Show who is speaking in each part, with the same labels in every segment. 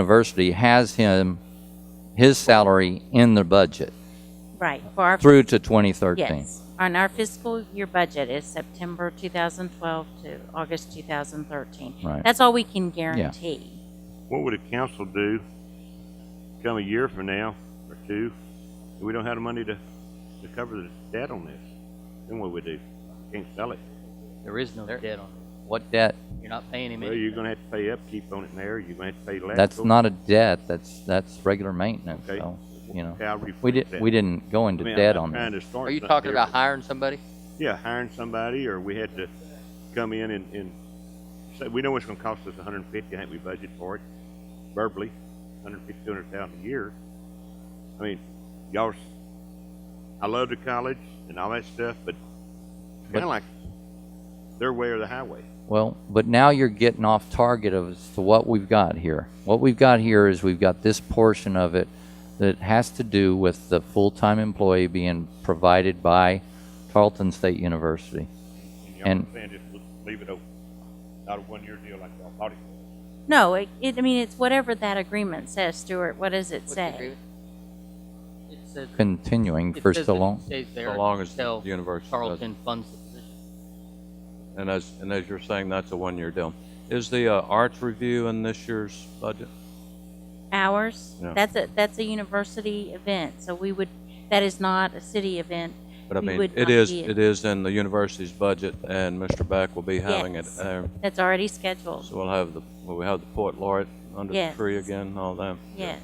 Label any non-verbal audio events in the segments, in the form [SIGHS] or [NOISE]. Speaker 1: university has him, his salary in the budget
Speaker 2: Right, for our,
Speaker 1: through to 2013.
Speaker 2: yes. On our fiscal year budget is September 2012 to August 2013.
Speaker 1: Right.
Speaker 2: That's all we can guarantee.
Speaker 3: What would a council do come a year from now or two? If we don't have the money to, to cover the debt on this, then what would we do? Can't sell it.
Speaker 4: There is no debt on it.
Speaker 1: What debt?
Speaker 4: You're not paying him
Speaker 3: Well,
Speaker 4: any.
Speaker 3: you're gonna have to pay upkeep on it there, you're gonna have to pay electrical.
Speaker 1: That's not a debt, that's, that's regular maintenance,
Speaker 3: Okay.
Speaker 1: so, you know.
Speaker 3: How we
Speaker 1: We did,
Speaker 3: fix that.
Speaker 1: we didn't go
Speaker 3: I
Speaker 1: into
Speaker 3: mean, I'm
Speaker 1: debt
Speaker 3: not
Speaker 1: on
Speaker 3: trying
Speaker 1: that.
Speaker 3: to start
Speaker 4: Are you
Speaker 3: something
Speaker 4: talking
Speaker 3: here,
Speaker 4: about hiring somebody?
Speaker 3: but- Yeah, hiring somebody, or we had to come in and, and say, we know it's gonna cost us a hundred and fifty, I think we budgeted for it verbally, hundred and fifty, two hundred thousand a year. I mean, y'all, s- I love the college and all that stuff, but kinda
Speaker 1: But-
Speaker 3: like their way or the highway.
Speaker 1: Well, but now you're getting off target of as to what we've got here. What we've got here is we've got this portion of it that has to do with the full-time employee being provided by Tarleton State University.
Speaker 3: Y'all
Speaker 1: And-
Speaker 3: saying just leave it open, not a one-year deal like y'all thought it was.
Speaker 2: No, it, it- I mean, it's whatever that agreement says, Stuart, what does it
Speaker 4: What's the
Speaker 2: say?
Speaker 4: agreement? It says-
Speaker 1: Continuing
Speaker 4: it
Speaker 1: for
Speaker 4: says
Speaker 1: so
Speaker 4: that it
Speaker 1: long.
Speaker 4: Stays there.
Speaker 5: So long as
Speaker 4: until
Speaker 5: the university does it.
Speaker 4: Tarleton funds the position.
Speaker 5: And as, and as you're saying, that's a one-year deal. Is the uh, arts review in this year's budget?
Speaker 2: Hours?
Speaker 5: Yeah.
Speaker 2: That's a, that's a university event, so we would, that is not a city event.
Speaker 5: But I
Speaker 2: We
Speaker 5: mean,
Speaker 2: would
Speaker 5: it
Speaker 2: not
Speaker 5: is,
Speaker 2: be-
Speaker 5: it is in the university's budget, and Mr. Beck will be having it
Speaker 2: Yes.
Speaker 5: there.
Speaker 2: That's already scheduled,
Speaker 5: So we'll have the, will we have the port laureate under the
Speaker 2: Yes.
Speaker 5: tree again, and all that?
Speaker 2: yes.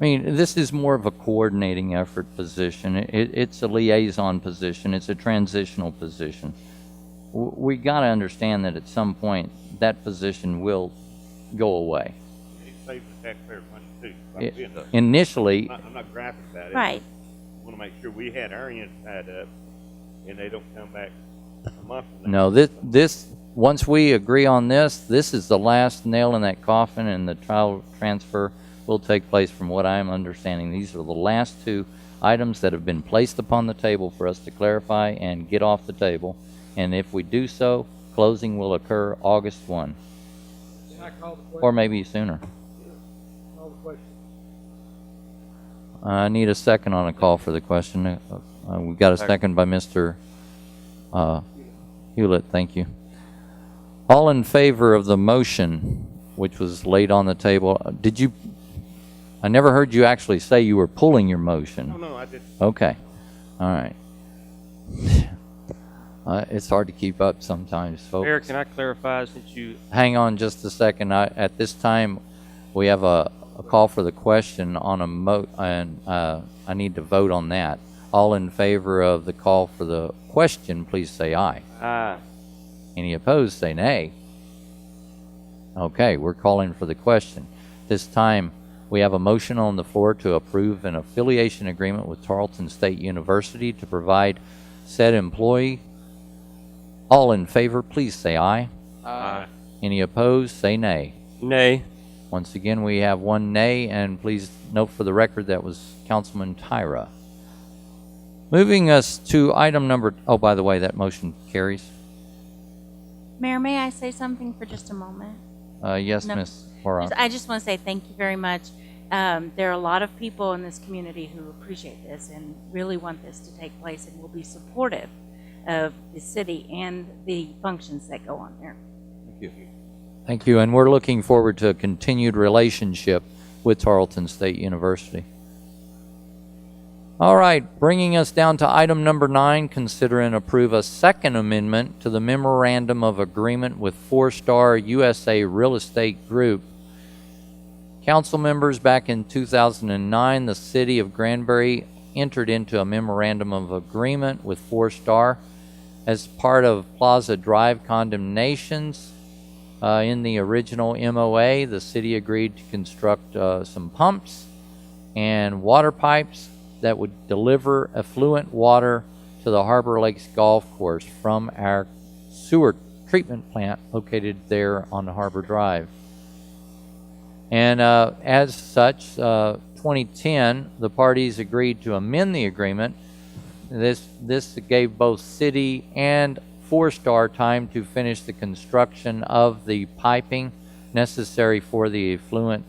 Speaker 1: I mean, this is more of a coordinating effort position. It, it's a liaison position. It's a transitional position. W- We got to understand that at some point, that position will go away.
Speaker 3: It saves the taxpayer money too.
Speaker 1: It-
Speaker 3: I'm being- I'm
Speaker 1: Initially,
Speaker 3: not, I'm not griping about it.
Speaker 2: Right,
Speaker 3: Want to make sure we had our end tied up and they don't come back a month from now.
Speaker 1: no, this, this, once we agree on this, this is the last nail in that coffin and the trial transfer will take place from what I am understanding. These are the last two items that have been placed upon the table for us to clarify and get off the table. And if we do so, closing will occur August one,
Speaker 6: Can I call the
Speaker 1: or
Speaker 6: question?
Speaker 1: maybe sooner.
Speaker 6: Call the question.
Speaker 1: I need a second on a call for the question. Uh, uh, We got a second by Mr. uh, Hewlett, thank you. All in favor of the motion, which was laid on the table, uh, did you, I never heard you actually say you were pulling your
Speaker 3: No,
Speaker 1: motion.
Speaker 3: no, I just,
Speaker 1: Okay, all right. [SIGHS] Uh, It's hard to keep up sometimes, folks.
Speaker 7: Eric, can I clarify since you
Speaker 1: Hang on just a second. I, at this time, we have a, a call for the question on a mo, and, uh, I need to vote on that. All in favor of the call for the question, please say aye.
Speaker 7: uh,
Speaker 1: Any opposed, say nay. Okay, we're calling for the question. This time, we have a motion on the floor to approve an affiliation agreement with Tarleton State University to provide said employee. All in favor, please say aye.
Speaker 4: Uh,
Speaker 1: Any opposed, say nay.
Speaker 7: nay,
Speaker 1: Once again, we have one nay, and please note for the record that was Councilman Tyra. Moving us to item number, oh, by the way, that motion carries.
Speaker 2: Mayor, may I say something for just a moment?
Speaker 1: Uh, yes,
Speaker 2: No.
Speaker 1: Ms. Laura.
Speaker 2: I just want to say thank you very much. Um, there are a lot of people in this community who appreciate this and really want this to take place and will be supportive of the city and the functions that go on there.
Speaker 5: Thank you.
Speaker 1: Thank you, and we're looking forward to a continued relationship with Tarleton State University. All right, bringing us down to item number nine, consider and approve a second amendment to the memorandum of agreement with Four Star USA Real Estate Group Council members, back in 2009, the city of Granbury entered into a memorandum of agreement with Four Star as part of Plaza Drive condemnations. Uh, in the original MOA, the city agreed to construct uh, some pumps and water pipes that would deliver affluent water to the Harbor Lakes Golf Course from our sewer treatment plant located there on Harbor Drive. And uh, as such, uh, 2010, the parties agreed to amend the agreement. This, this gave both city and Four Star time to finish the construction of the piping necessary for the affluent